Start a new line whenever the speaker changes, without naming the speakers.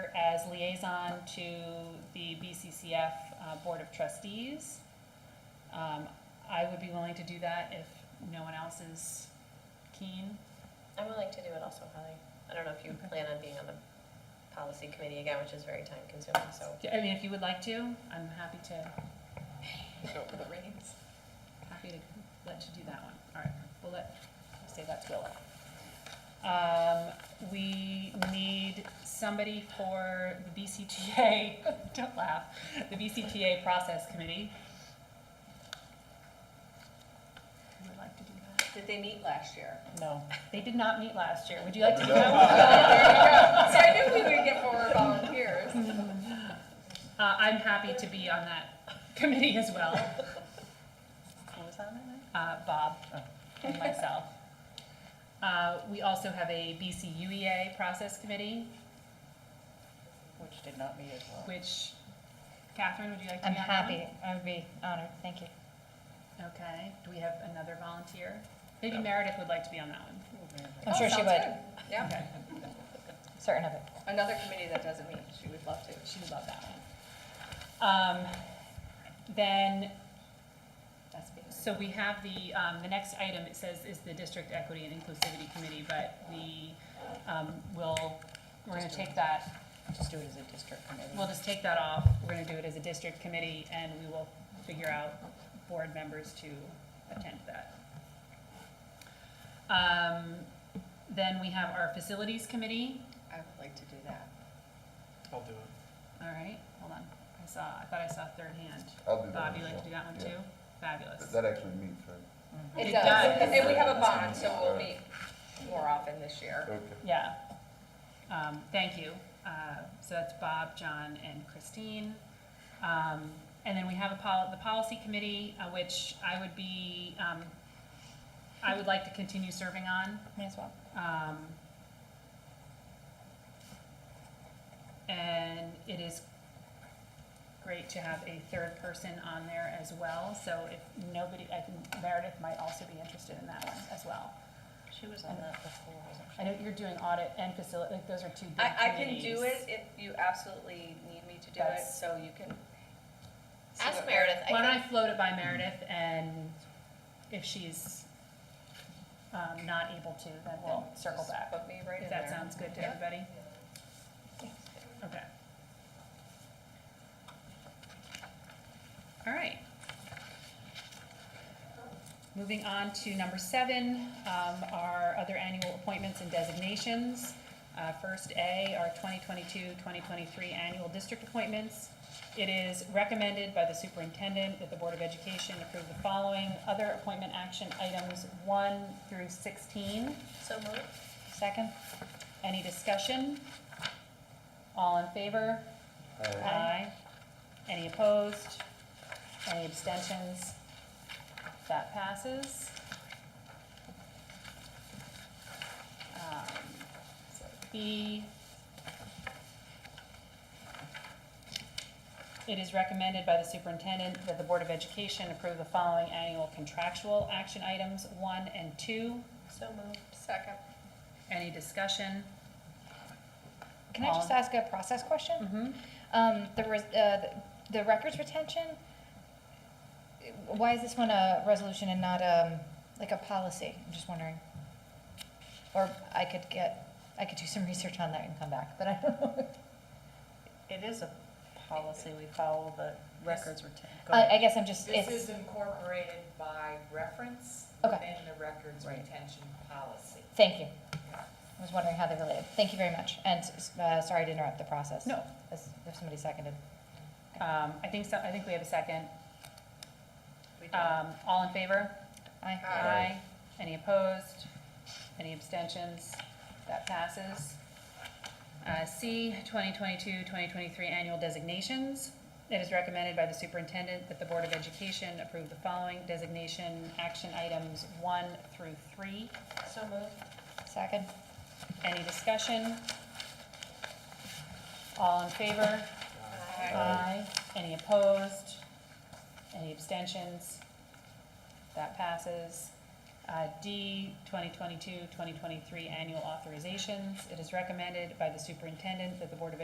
as liaison to the BCCF uh, Board of Trustees. Um, I would be willing to do that if no one else is keen.
I'm willing to do it also, Holly. I don't know if you
Okay.
plan on being on the policy committee again, which is very time consuming, so.
I mean, if you would like to, I'm happy to,
The reins.
happy to let you do that one. All right, we'll let, we'll say that's Willa. Um, we need somebody for the BCTA, don't laugh, the BCTA Process Committee. Who would like to do that?
Did they meet last year? Oh,
No, they did not meet last year. Would you like to do that one?
So I knew we would get more volunteers.
Uh, I'm happy to be on that committee as well,
Who was on that?
uh, Bob and myself. Uh, we also have E a BCUEA Process Committee,
Which did not meet as well.
which Catherine, would you like to
I'm
be on that one?
happy, I would be honored, thank you.
Okay, do we have another volunteer? Maybe Meredith would like to be on that one.
I'm sure she would,
Yeah,
certain of it.
another committee that doesn't meet, she would love to.
She would love that one. Um, then,
That's being.
so we have the, um, the next item, it says is the District Equity and Inclusivity Committee, but we, um, will, we're gonna take that,
Just do it as a district committee.
we'll just take that off. We're gonna do it as a district committee and we will figure out board members to attend that. Um, then we have our Facilities Committee.
I would like to do that.
I'll do it.
All right, hold on. I saw, I thought I saw third hand.
I'll do that.
Bob, you
one,
like to do that one
yeah.
too? Fabulous.
That actually meets, right?
It
It
does.
does, and we have a bond, so we'll meet more often this year.
Okay.
Yeah. Um, thank you. Uh, so that's Bob, John, and Christine. Um, and then we have a pol- the policy committee, uh, which I would be, um, I would like to continue serving on.
Me as well.
Um, and it is great to have a third person on there as well, so if nobody, I think Meredith might also be interested in that one as well.
She was on that before, wasn't she?
I know you're doing audit and facility, like, those are two big
I, I can do
committees.
it if you absolutely need me to do it,
That's-
so you can. see
Ask
what-
Meredith,
Why
I
don't I
think,
float it by Meredith, and if she's, um, not able to, then we'll
Then
circle
just
back.
Put me right in
If
there.
that sounds good to everybody? Okay. All right. Moving on to number seven, um, our other annual appointments and designations. Uh, First A are 2022-2023 annual district appointments. It is recommended by the superintendent that the Board of Education approve the following other appointment action items one through 16.
so moved.
Second?
Any discussion? All in favor? Aye. Any opposed? Any abstentions? That passes. Um, so B. It is recommended by the superintendent that the Board of Education approve the following annual contractual action items, one and two.
So moved.
Second.
Any discussion?
Can I just
All-
ask a process question?
Mm-hmm.
Um, the res- uh, the the records retention, why is this one a resolution and not, um, like a policy? I'm just wondering. Or I could get, I could do some research on that and come back, but I don't know.
It is a policy, we follow the records retain. go ahead.
I, I guess I'm just,
This
it's,
is incorporated by reference
Okay.
within the records
Right.
retention policy.
thank you. I was wondering how they related. Thank you very much, and, uh, sorry to interrupt the process.
No.
If if somebody seconded.
Um, I think so, I think we have a second.
We do.
Um, all in favor?
Aye.
Aye. Any opposed? Any abstentions? That passes. Uh, C, 2022-2023 annual designations. It is recommended by the superintendent that the Board of Education approve the following designation action items one through three.
So moved.
Second?
Any discussion? All in favor?
Aye.
Aye. Any opposed? Any abstentions? That passes. Uh, D, 2022-2023 annual authorizations. It is recommended by the superintendent that the Board of